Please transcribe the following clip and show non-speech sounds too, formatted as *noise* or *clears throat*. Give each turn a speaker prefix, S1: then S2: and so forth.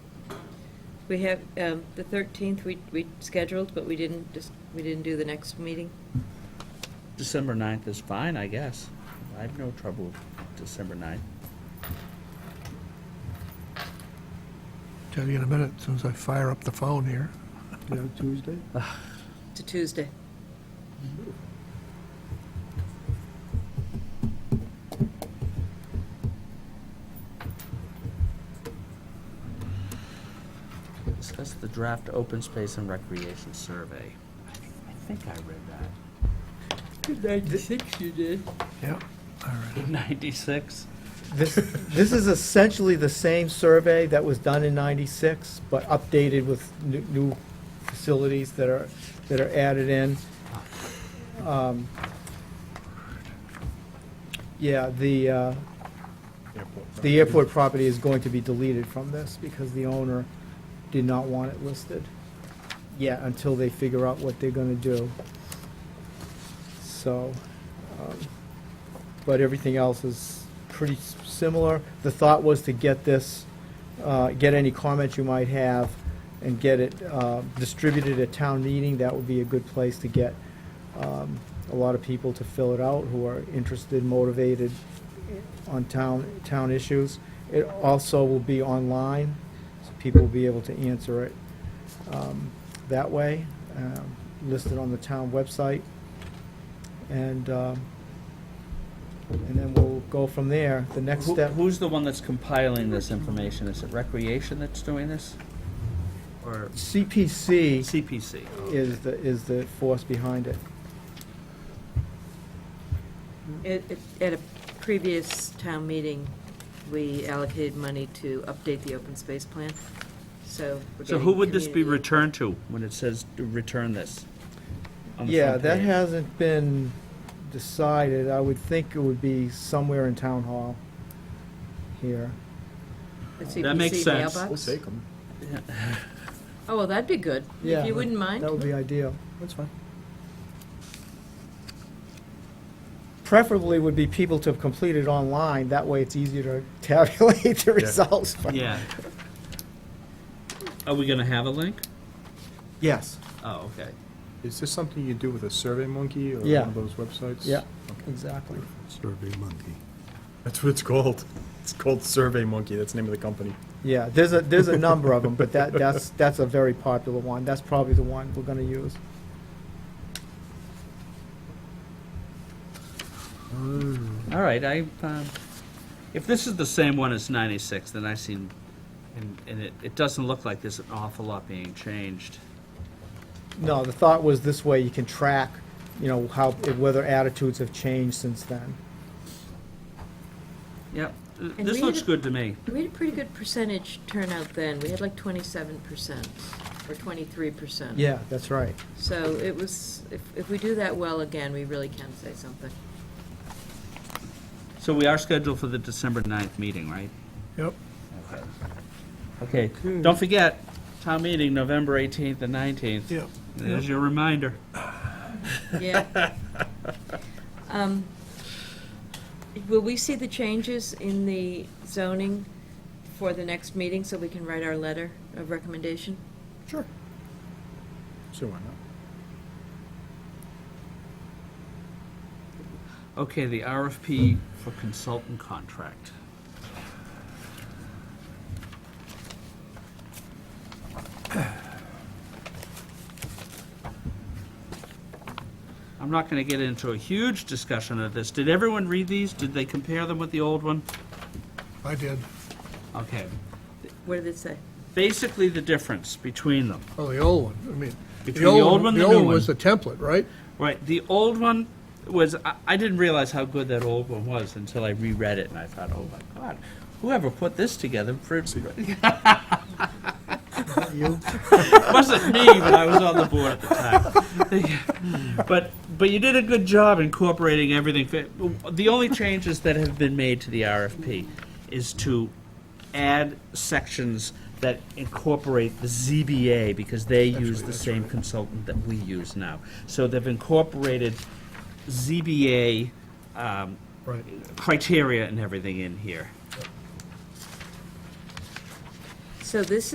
S1: we have, um, the 13th, we, we scheduled, but we didn't, just, we didn't do the next meeting.
S2: December 9th is fine, I guess. I have no trouble with December 9th.
S3: Tell you in a minute, as soon as I fire up the phone here.
S4: Yeah, Tuesday?
S1: It's a Tuesday.
S2: Discuss the draft open space and recreation survey. I think I read *laughs* that.
S1: Ninety-six you did.
S3: *laughs* Yep, all right.
S2: 96?
S4: This, this is essentially the same survey that was done in ninety-six, but updated with new, new facilities that are, that are added in. Um, Yeah, the, uh, the airport property is going to be deleted from this because the owner did not want it listed yet until they figure out what they're gonna do. So, um, but everything else is pretty s- similar. The thought was to get this, uh, get any comments you might have and get it uh, distributed at town meeting. That would be a good place to get um, a lot of people to fill it out who are interested, motivated on town, town issues. It also will be online, so people will be able to answer it um, that way, um, listed on the town website. And, um, and then we'll go from there. The next
S2: Who-
S4: step,
S2: Who's the one that's compiling this information? Is it Recreation that's doing this? Or
S4: CPC
S2: CPC?
S4: is the, is the force behind it.
S1: At, at- at a previous town meeting, we allocated money to update the open space plan, so. we're
S2: So who
S1: getting
S2: would this be
S1: community-
S2: returned to when it says to return this? on the
S4: Yeah,
S2: front
S4: that
S2: page?
S4: hasn't been decided. I would think it would be somewhere in town hall here.
S1: The
S2: That makes
S1: CPC
S2: sense.
S1: mailbox?
S5: We'll take them.
S1: Oh, well, that'd be good,
S4: Yeah,
S1: if you wouldn't mind.
S4: That would be ideal.
S5: That's fine.
S4: Preferably would be people to have completed online. That way it's easier to *laughs* tabulate the results. but- *laughs*
S2: Yeah. Are we gonna have a link?
S4: Yes,
S2: Oh, okay.
S5: Is this something you do with a Survey Monkey or
S4: Yeah.
S5: one of those websites?
S4: yeah, exactly.
S5: Survey Monkey. That's what it's called. It's called Survey Monkey. That's the name of the company.
S4: Yeah, there's a, there's a number of them, but that, that's, that's a very popular one. That's probably the one we're gonna use.
S2: All right, I, um, if this is the same one as ninety-six, then I seen, and, and it, it doesn't look like there's an awful lot being changed.
S4: No, the thought was this way you can track, you know, how, whether attitudes have changed since then.
S2: Yep, th-
S1: And
S2: this
S1: we
S2: looks
S1: had a-
S2: good to me.
S1: We had a pretty good percentage turnout then, we had like twenty-seven percent, or twenty-three percent.
S4: Yeah, that's right.
S1: So it was, if, if we do that well again, we really can say something.
S2: So we are scheduled for the December 9th meeting, right?
S3: Yep.
S2: Okay,
S1: Hmm.
S2: don't forget, town meeting, November eighteenth and nineteenth.
S3: Yep.
S2: There's your reminder.
S1: Yeah. Um, Will we see the changes in the zoning for the next meeting, so we can write our letter of recommendation?
S5: Sure. Sure, why not?
S2: Okay, the RFP for consultant contract. *clears throat* I'm not gonna get into a huge discussion of this. Did everyone read these? Did they compare them with the old one?
S3: I did.
S2: Okay.
S1: What did it say?
S2: Basically, the difference between them.
S3: Oh, the old one, I mean.
S2: Between the old one and the new
S3: The old was
S2: one.
S3: the template, right?
S2: Right, the old one was, I, I didn't realize how good that old one was until I reread it and I thought, oh my god, whoever put this together, for-
S4: You,
S2: *laughs* wasn't me, but I was on the board at the time. But, but you did a good job incorporating everything. The only changes that have been made to the RFP is to add sections that incorporate the ZBA, because they use the same consultant that we use now. So they've incorporated ZBA um,
S3: Right.
S2: criteria and everything in here.
S1: So this